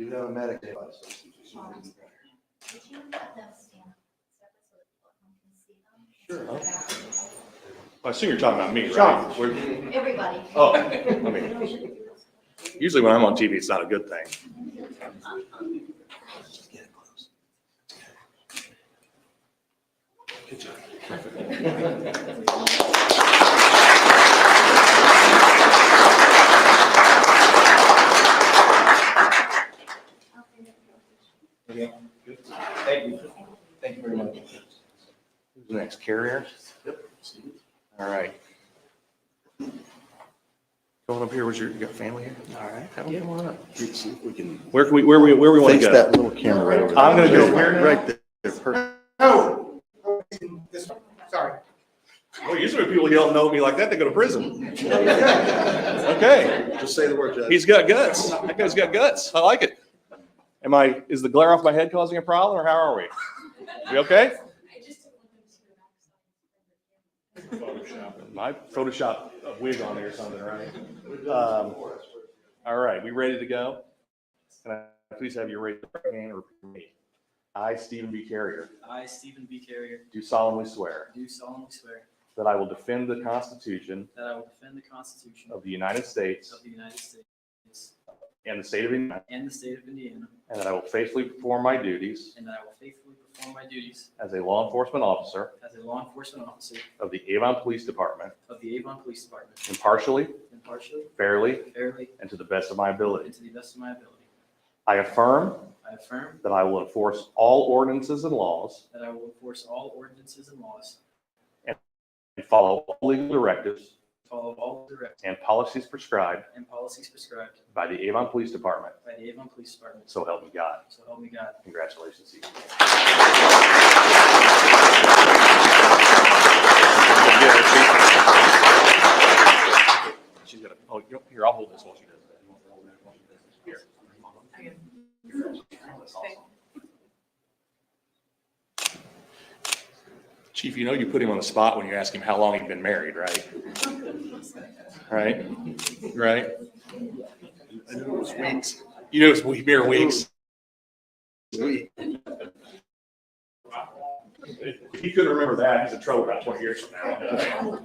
on a Medicaid license. Would you let them stand separate so that everyone can see them? Sure. I assume you're talking about me, Sean. right? We're- Everybody. Oh, I mean, usually when I'm on TV, it's not a good thing. Thank you. Thank you very much. Who's Next carrier? All right. Going up here, was your, you got family here? All right. Have them come on up. See if we can Where can we, where we, where we want to fix go? that little camera right over there. I'm gonna go where now? Right there. perfect. Oh, this one. sorry. Well, Oh, usually people who don't know me like that, they go to prison. Okay, Just say the word, Judge. he's got guts. That guy's got guts. I like it. Am I, is the glare off my head causing a problem or how are we? We okay? My Photoshop a wig on there or something, right? Um, All right, we ready to go? Can I please have your raised right hand or repeat me? I, Stephen B. Carrier, I, Stephen B. Carrier, do solemnly swear do solemnly swear that I will defend the Constitution that I will defend the Constitution of the United States of the United States and the state of Indiana, and the state of Indiana, and that I will faithfully perform my duties and that I will faithfully perform my duties as a law enforcement officer as a law enforcement officer of the Avon Police Department of the Avon Police Department impartially, impartially, fairly, fairly, and to the best of my ability. and to the best of my ability. I affirm I affirm that I will enforce all ordinances and laws that I will enforce all ordinances and laws, and follow all legal directives follow all directives and policies prescribed and policies prescribed by the Avon Police Department. by the Avon Police Department. So help me God. So help me God. Congratulations, Steve. She's gonna, oh, you- here, I'll hold this while she does that. Here. That's awesome. Chief, you know you put him on the spot when you ask him how long he'd been married, right? Right? Right? I knew it was wings. You know, it's we- mere weeks. Sweet. If he couldn't remember that, he's in trouble about twenty years from now.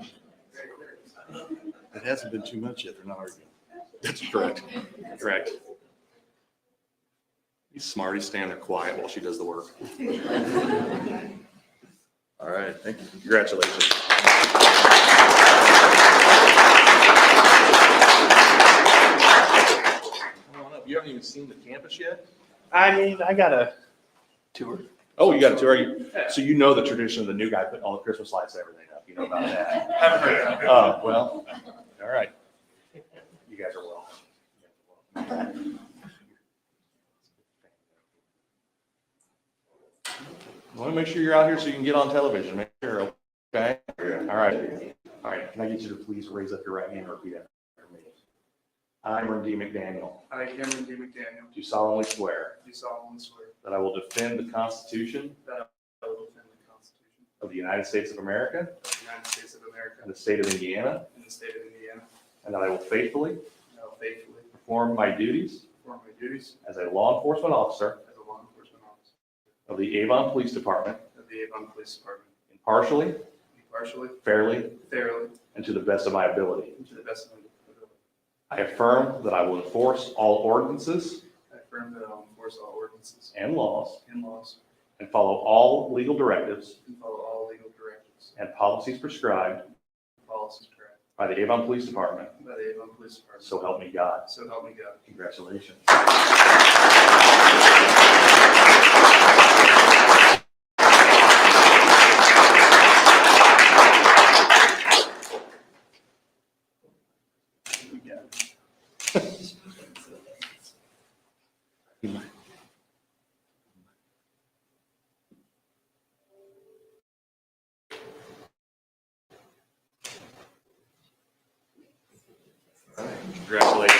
It hasn't been too much yet. They're not arguing. That's correct. Correct. He's smart. He's standing there quiet while she does the work. All right, thank you. Congratulations. Come on up. You haven't even seen the campus yet? I mean, I got a tour. Oh, you got it too. Are you? So you know the tradition of the new guy putting all the Christmas lights and everything up. You know about that. Haven't heard of it. Uh, well, all right. You guys are welcome. Want to make sure you're out here so you can get on television, make sure, okay? All right, all right, can I get you to please raise up your right hand and repeat after me? I, Aaron D. McDaniel, I, Cameron D. McDaniel, do solemnly swear do solemnly swear that I will defend the Constitution that I will defend the Constitution of the United States of America of the United States of America and the state of Indiana, and the state of Indiana, and that I will faithfully and I will faithfully perform my duties perform my duties as a law enforcement officer as a law enforcement officer of the Avon Police Department of the Avon Police Department impartially, impartially, fairly, fairly, and to the best of my ability. and to the best of my ability. I affirm that I will enforce all ordinances I affirm that I will enforce all ordinances and laws and laws and follow all legal directives and follow all legal directives and policies prescribed and policies prescribed by the Avon Police Department. by the Avon Police Department. So help me God. So help me God. Congratulations. Congratulations.